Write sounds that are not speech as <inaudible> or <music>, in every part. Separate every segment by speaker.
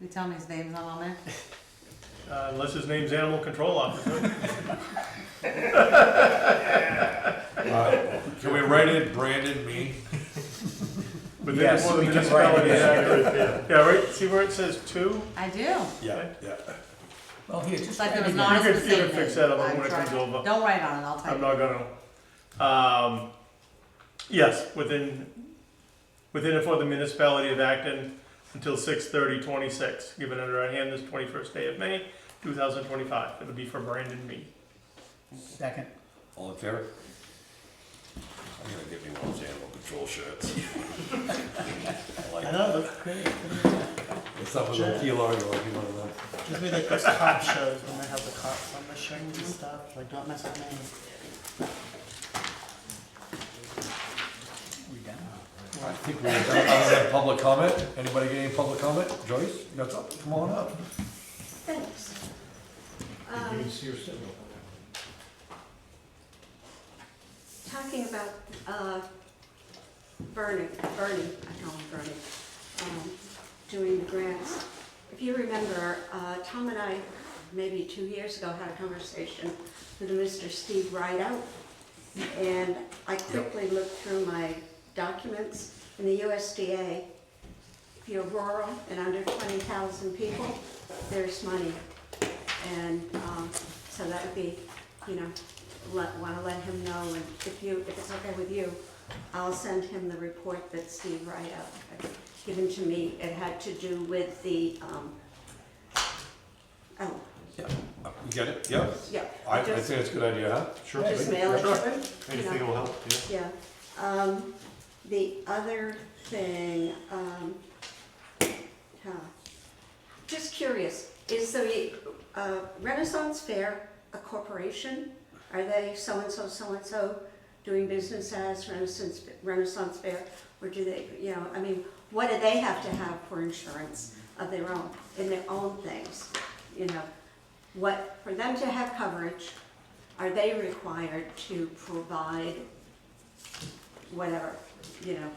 Speaker 1: You tell me his name's not on there?
Speaker 2: Uh, Unless his name's Animal Control
Speaker 3: <laughs>
Speaker 2: Officer.
Speaker 3: Uh, Can we write in Brandon me?
Speaker 2: But then
Speaker 3: Yes,
Speaker 2: one of the
Speaker 3: we can write it
Speaker 2: municipalities-
Speaker 3: in.
Speaker 2: Yeah, right, see where it says two?
Speaker 1: I do.
Speaker 3: Yeah, yeah.
Speaker 4: Well, here,
Speaker 1: It's
Speaker 4: just.
Speaker 1: like there was
Speaker 2: You
Speaker 1: not a
Speaker 2: can- you can
Speaker 1: specific.
Speaker 2: fix
Speaker 1: name.
Speaker 2: that up
Speaker 1: I'm
Speaker 2: when it comes
Speaker 1: trying.
Speaker 2: over.
Speaker 1: Don't write on it, I'll
Speaker 2: I'm
Speaker 1: type it.
Speaker 2: not gonna. Um, yes, within, within and for the municipality of Acton until six thirty twenty-six, given under our hand this twenty-first day of May, two thousand twenty-five. It'll be for Brandon Mead.
Speaker 4: Second.
Speaker 3: All in favor? I'm gonna get me one of those animal control shirts. I like that.
Speaker 4: know, that's great.
Speaker 3: It's up with a kilo, you like one of them.
Speaker 4: Just be like those cop shows when they have the cops on the shirt and stuff, like, don't mess up names. We done?
Speaker 3: I think we're done, I don't have public comment, anybody get any public comment? Joyce, you got something, come on up.
Speaker 5: Thanks. Um, Talking about, uh, Bernie, Bernie, I call him Bernie, um, doing the grants. If you remember, uh, Tom and I, maybe two years ago, had a conversation with Mr. Steve Rideout. And I quickly looked through my documents in the USDA. If you're rural and under twenty thousand people, there's money. And um, so that would be, you know, let, want to let him know, and if you, if it's okay with you, I'll send him the report that Steve write up, had given to me. It had to do with the, um, oh,
Speaker 3: Uh, You get it, yeah?
Speaker 5: yeah.
Speaker 3: I, I
Speaker 5: just-
Speaker 3: think it's a good idea, huh? Sure.
Speaker 5: Just mail it to
Speaker 3: Sure.
Speaker 5: him. you know.
Speaker 2: will help, yeah.
Speaker 5: Yeah, um, the other thing, um, huh, just curious, is the uh, Renaissance Fair a corporation? Are they so-and-so, so-and-so doing business as Renaissance, Renaissance Fair? Or do they, you know, I mean, what do they have to have for insurance of their own, in their own things? You know, what, for them to have coverage, are they required to provide whatever, you know,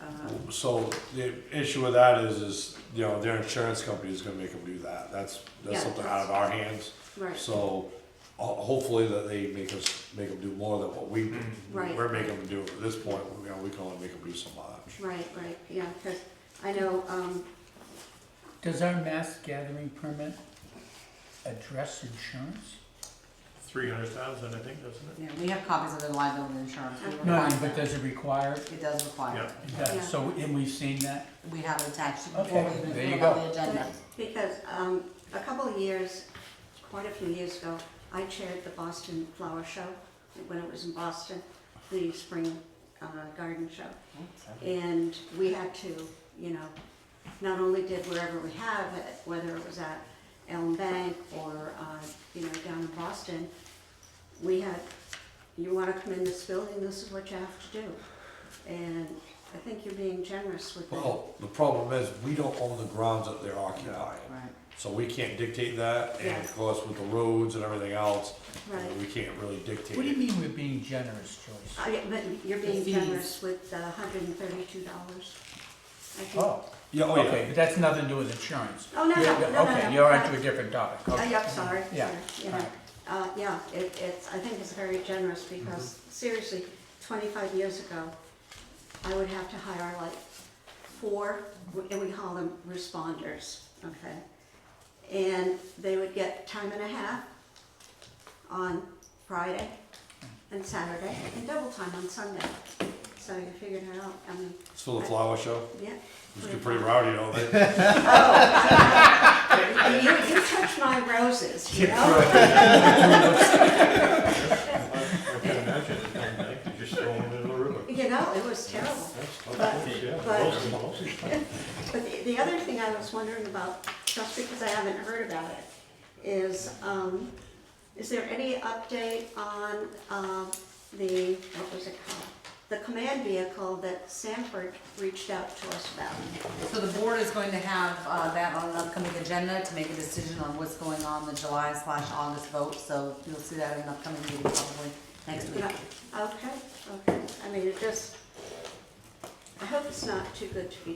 Speaker 5: uh,
Speaker 3: So the issue with that is, is, you know, their insurance company is gonna make them do that, that's,
Speaker 5: Yeah.
Speaker 3: that's something out of our hands.
Speaker 5: right,
Speaker 3: So, ho- hopefully that they make us, make them do more than what we,
Speaker 5: Right.
Speaker 3: we're making them do at this point, you know, we can only make them do so much.
Speaker 5: right, right, yeah, because I know, um,
Speaker 4: Does our mass gathering permit address insurance?
Speaker 2: Three hundred thousand, I think, doesn't
Speaker 1: Yeah, we have copies of the liability insurance. We
Speaker 5: No,
Speaker 4: No,
Speaker 1: require
Speaker 4: but
Speaker 1: that.
Speaker 4: does it require?
Speaker 1: It does require,
Speaker 2: Yeah.
Speaker 1: it.
Speaker 4: It does, so, and we've seen that?
Speaker 1: we have it attached
Speaker 4: Okay,
Speaker 1: before we even
Speaker 4: there you
Speaker 1: put it on
Speaker 4: go.
Speaker 1: the agenda.
Speaker 5: because um, a couple of years, quite a few years ago, I chaired the Boston Flower Show, when it was in Boston, the spring uh, garden show. And we had to, you know, not only did wherever we have it, whether it was at Elm Bank or, uh, you know, down in Boston, we had, you wanna come in this building, this is what you have to do. And I think you're being generous with that.
Speaker 3: Well, the problem is, we don't own the grounds that they're occupying,
Speaker 1: Right,
Speaker 3: so we can't dictate that, and
Speaker 5: Yeah.
Speaker 3: of course, with the roads and everything else, you know,
Speaker 5: Right.
Speaker 3: we can't really
Speaker 4: What do you
Speaker 3: dictate it.
Speaker 4: mean we're being generous, Joyce?
Speaker 5: Uh, yeah, But you're
Speaker 1: The
Speaker 5: being
Speaker 1: fees.
Speaker 5: generous with the hundred and thirty-two dollars.
Speaker 4: Oh,
Speaker 3: Yeah, oh
Speaker 4: okay,
Speaker 3: yeah,
Speaker 4: but that's nothing to do with insurance.
Speaker 5: Oh, no, no,
Speaker 4: Yeah,
Speaker 5: no, no, no.
Speaker 4: Okay, you're onto a different topic,
Speaker 5: Uh,
Speaker 4: okay.
Speaker 5: yeah, I'm sorry,
Speaker 4: Yeah,
Speaker 5: sorry, you know.
Speaker 4: alright.
Speaker 5: Uh, yeah, it, it's, I think it's very generous because
Speaker 4: Mm-hmm.
Speaker 5: seriously, twenty-five years ago, I would have to hire like four, and we call them responders, okay? And they would get time and a half on Friday and Saturday and double time on Sunday. So you figured it out, I mean,
Speaker 3: it's for the flower show,
Speaker 5: yeah.
Speaker 3: it's getting pretty rowdy, don't they?
Speaker 5: You, you touched my roses, you know?
Speaker 6: I can imagine it coming back, you just throw them into the river.
Speaker 5: You know, it was terrible.
Speaker 6: Yeah,
Speaker 5: But-
Speaker 6: roast 'em, roast 'em.
Speaker 5: But the, the other thing I was wondering about, just because I haven't heard about it, is, um, is there any update on, um, the, what was it called? The command vehicle that Sanford reached out to us about.
Speaker 1: So the board is going to have uh, that on an upcoming agenda to make a decision on what's going on the July slash August vote. So you'll see that in an upcoming meeting probably next
Speaker 5: You
Speaker 1: week.
Speaker 5: know, Okay, okay, I mean, it just, I hope it's not too good to be